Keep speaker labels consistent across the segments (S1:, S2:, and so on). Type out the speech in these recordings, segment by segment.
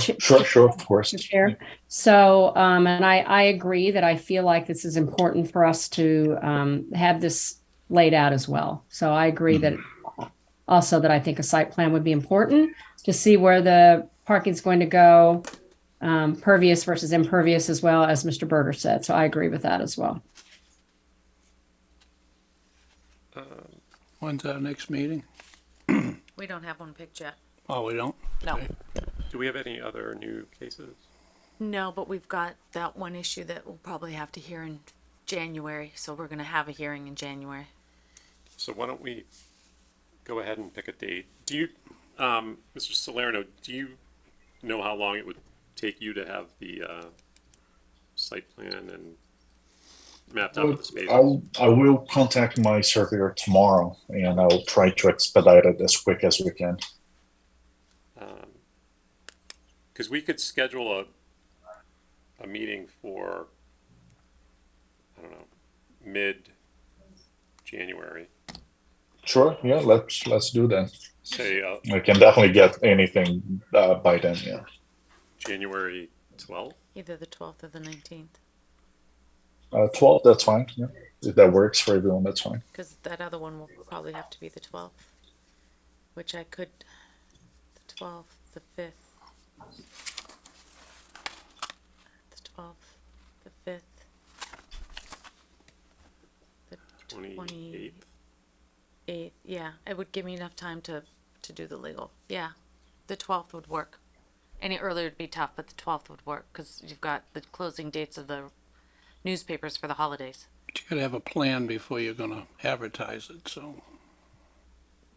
S1: ch-
S2: Sure, sure, of course.
S1: Mr. Chair. So, um, and I, I agree that I feel like this is important for us to, um, have this laid out as well. So I agree that also that I think a site plan would be important to see where the parking's going to go, um, pervious versus impervious as well, as Mr. Berger said. So I agree with that as well.
S3: When's our next meeting?
S4: We don't have one picked yet.
S3: Oh, we don't?
S4: No.
S3: Okay.
S5: Do we have any other new cases?
S4: No, but we've got that one issue that we'll probably have to hear in January, so we're gonna have a hearing in January.
S5: So why don't we go ahead and pick a date? Do you, um, Mr. Salerno, do you know how long it would take you to have the, uh, site plan and mapped out with the spaces?
S2: I'll, I will contact my surveyor tomorrow and I will try to expedite it as quick as we can.
S5: Um, Cause we could schedule a, a meeting for, I don't know, mid-January,
S2: Sure, yeah, let's, let's do that.
S5: say, uh,
S2: We can definitely get anything uh, by then, yeah.
S5: January twelfth?
S4: Either the twelfth or the nineteenth,
S2: Uh, 12, that's fine, yeah. If that works for everyone, that's fine.
S4: because that other one will probably have to be the twelfth, which I could, the twelfth, the fifth. The twelfth, the fifth. The
S5: Twenty-eighth.
S4: Eighth, yeah, it would give me enough time to, to do the legal, yeah. The twelfth would work. Any earlier would be tough, but the twelfth would work, because you've got the closing dates of the newspapers for the holidays.
S3: But you gotta have a plan before you're gonna advertise it, so.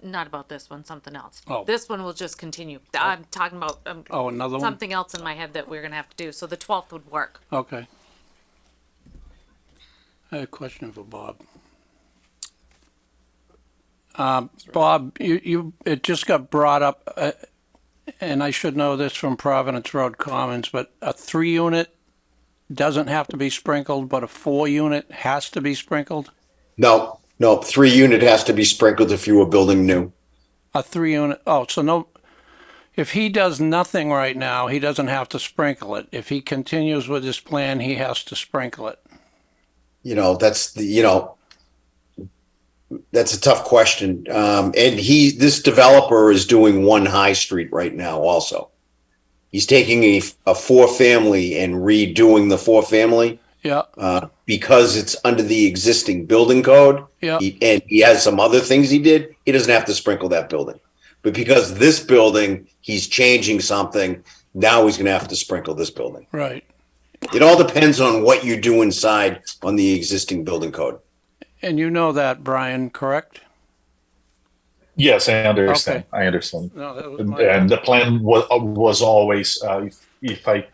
S4: Not about this one, something else.
S3: Oh.
S4: This one will just continue.
S5: Oh.
S4: Th- I'm talking about, um,
S3: Oh, another one?
S4: something else in my head that we're gonna have to do, so the twelfth would work.
S3: Okay. I have a question for Bob. Um, Bob, you, you, it just got brought up, uh, and I should know this from Providence Road Commons, but a three-unit doesn't have to be sprinkled, but a four-unit has to be sprinkled?
S6: No, no, three unit has to be sprinkled if you were building new.
S3: A three unit, oh, so no, if he does nothing right now, he doesn't have to sprinkle it. If he continues with his plan, he has to sprinkle it.
S6: You know, that's the, you know, that's a tough question. Um, and he, this developer is doing one high street right now also. He's taking a, a four family and redoing the four family,
S3: Yeah,
S6: uh, because it's under the existing building code.
S3: yeah,
S6: He, and he has some other things he did. He doesn't have to sprinkle that building. But because this building, he's changing something, now he's going to have to sprinkle this building.
S3: right.
S6: It all depends on what you do inside on the existing building code.
S3: And you know that, Brian, correct?
S2: Yes, I understand, I understand.
S3: No, that was my,
S2: And the plan was, was always, uh, if, if I,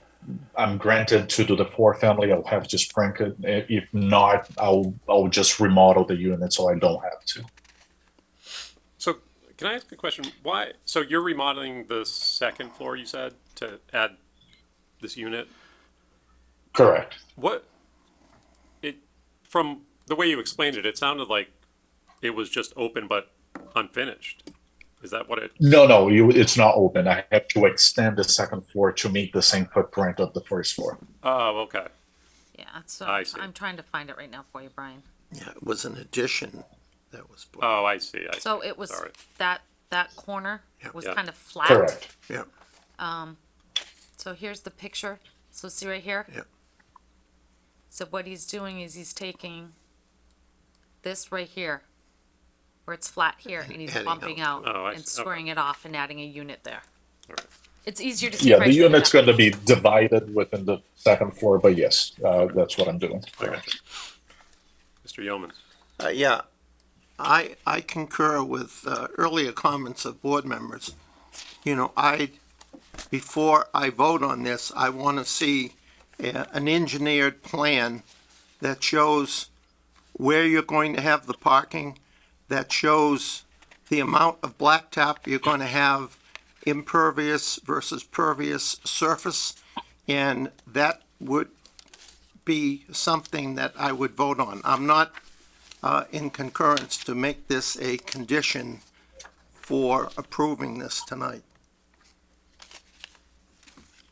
S2: I'm granted to do the four family, I'll have to sprinkle. it. If not, I'll, I'll just remodel the unit so I don't have to.
S5: So can I ask a question? Why, so you're remodeling the second floor, you said, to add this unit?
S2: Correct.
S5: What, it, from the way you explained it, it sounded like it was just open but unfinished. Is that what it,
S2: No, no, you, it's not open. I have to extend the second floor to meet the same footprint of the first floor.
S5: oh, okay.
S4: Yeah, so
S5: I see.
S4: I'm trying to find it right now for you, Brian.
S7: Yeah, it was an addition that was, put-
S5: Oh, I see, I see.
S4: So it was,
S5: Sorry.
S4: that, that corner
S7: Yeah.
S4: was
S5: Yeah.
S4: kind of flat.
S2: Correct.
S7: yeah,
S4: So here's the picture. So see right here?
S7: Yep.
S4: So what he's doing is he's taking this right here, where it's flat here, and he's
S7: adding
S4: bumping out
S5: Oh, I
S4: and
S5: see. Okay.
S4: squaring it off and adding a unit there.
S5: Alright.
S4: It's easier to see.
S2: Yeah,
S4: right
S2: the
S4: here than
S2: unit's
S4: that.
S2: going to be divided within the second floor, but yes, uh, that's what I'm doing.
S5: Mr. Yeomans?
S7: Uh, yeah. I, I concur with, uh, earlier comments of board members. You know, I, before I vote on this, I want to see uh, an engineered plan that shows where you're going to have the parking, that shows the amount of blacktop you're going to have, impervious versus pervious surface, and that would be something that I would vote on. I'm not uh, in concurrence to make this a condition for approving this tonight.